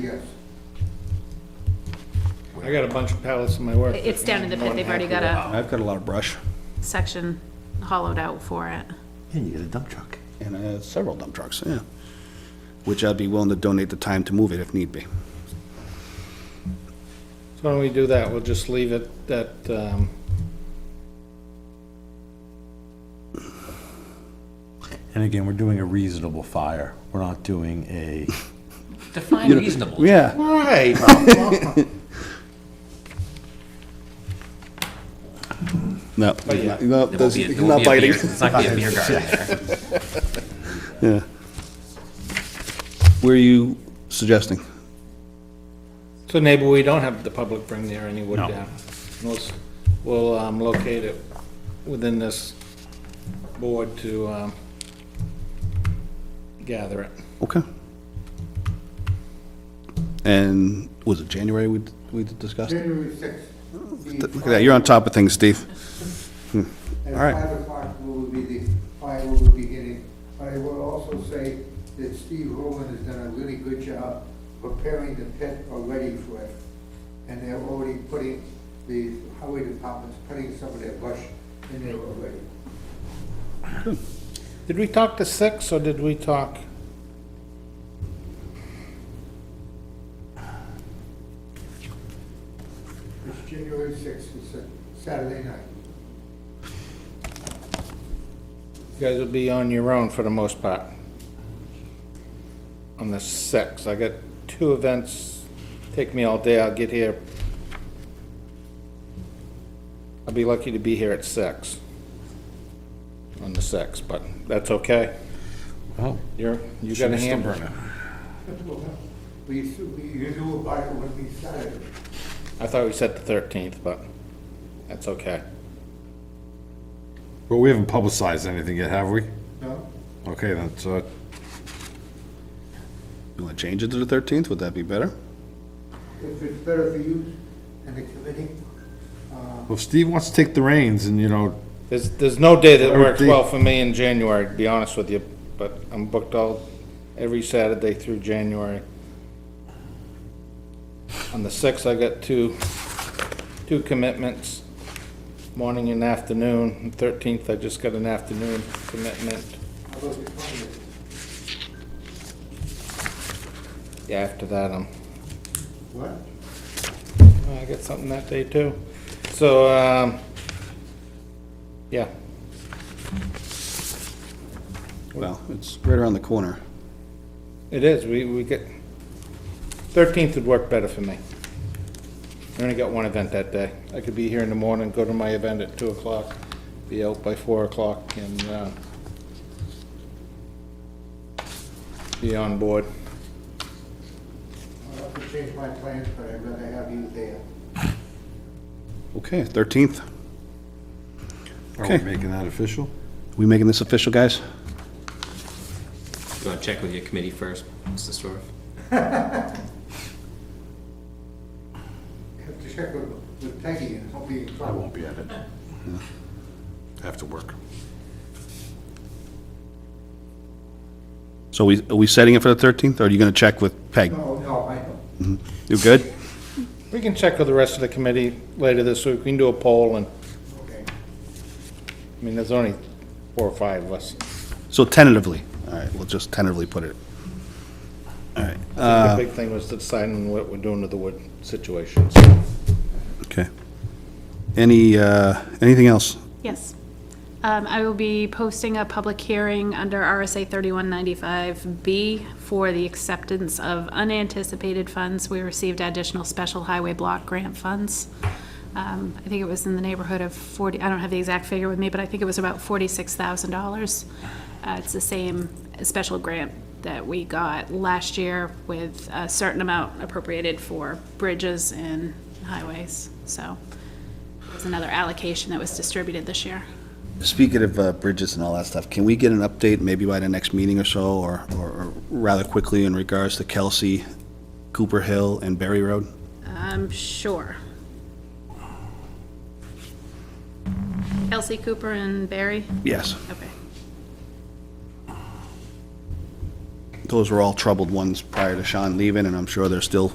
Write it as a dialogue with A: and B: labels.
A: yes.
B: I got a bunch of pallets in my work.
C: It's down in the pit, they've already got a
D: I've got a lot of brush
C: section hollowed out for it.
E: And you get a dump truck.
D: and uh, several dump trucks, yeah. Which I'd be willing to donate the time to move it if need be.
B: So why don't we do that? We'll just leave it that, um,
E: And again, we're doing a reasonable fire. We're not doing a,
F: Define reasonable.
D: Yeah,
B: right.
D: no,
B: yeah.
D: no,
F: There won't
D: that's
F: be a- there
D: not
F: won't be a beer-
D: biting,
F: It's not gonna be a beer garden there.
D: yeah. Where are you suggesting?
B: So maybe we don't have the public bring their any wood down. We'll, s- we'll, um, locate it within this board to, um, gather it.
D: Okay. And was it January we, we discussed? it?
A: January sixth.
D: Look at that, you're on top of things, Steve.
A: At
D: All right.
A: five o'clock will be the, fire will be beginning. But I will also say that Steve Roman has done a really good job preparing the pit already for it. And they're already putting, the highway department's putting some of their brush in there already.
B: Did we talk to six or did we talk?
A: It's January sixth, it's a Saturday night.
B: You guys will be on your own for the most part. On the sixth, I got two events, take me all day, I'll get here. I'll be lucky to be here at six. On the sixth, but that's okay.
E: oh,
B: You're, you got a hamburger.
A: We, used to- we usually buy it when we started.
B: I thought we said the thirteenth, but that's okay.
G: Well, we haven't publicized anything yet, have we?
A: No?
G: Okay, then, so,
D: You want to change it to the 13th? Would that be better?
A: If it's better for you and the committee,
G: well, if Steve wants to take the reins and, you know,
B: There's, there's no day that works
G: 13th.
B: well for me in January, to be honest with you, but I'm booked all, every Saturday through January. On the sixth, I got two, two commitments, morning and afternoon. Thirteenth, I just got an afternoon commitment.
A: how about the twentieth?
B: Yeah, after that, I'm,
A: What?
B: I got something that day too. So, um, yeah,
D: Well, it's right around the corner.
B: it is, we, we get, thirteenth would work better for me. I only got one event that day. I could be here in the morning, go to my event at two o'clock, be out by four o'clock and, uh, be on board.
A: I'll have to change my plans, but I'd rather have you there.
D: Okay, 13th.
G: are
D: Okay.
G: we making that official?
D: We making this official, guys?
F: You wanna check with your committee first, Mr. Storff?
A: Have to check with, with Peggy and I'll be in
E: I
A: trouble.
E: won't be at it.
G: After work.
D: So we, are we setting it for the 13th, or are you going to check with Peg?
A: No, Oh, no, I know.
D: You good?
B: We can check with the rest of the committee later this week. We can do a poll and,
A: Okay.
B: I mean, there's only four or five of us.
D: So tentatively, all right, we'll just tentatively put it. All right,
B: The big thing was deciding what we're doing to the wood situations.
D: okay. Any, uh, anything else?
C: Yes. Um, I will be posting a public hearing under RSA thirty-one ninety-five B for the acceptance of unanticipated funds. We received additional special highway block grant funds. Um, I think it was in the neighborhood of forty, I don't have the exact figure with me, but I think it was about forty-six thousand dollars. Uh, it's the same special grant that we got last year with a certain amount appropriated for bridges and highways, so. It's another allocation that was distributed this year.
D: Speaking of uh, bridges and all that stuff, can we get an update maybe by the next meeting or so, or, or rather quickly in regards to Kelsey, Cooper Hill, and Berry Road?
C: I'm Um, sure. Kelsey Cooper and Barry?
D: Yes.
C: Okay.
D: those were all troubled ones prior to Sean leaving, and I'm sure they're still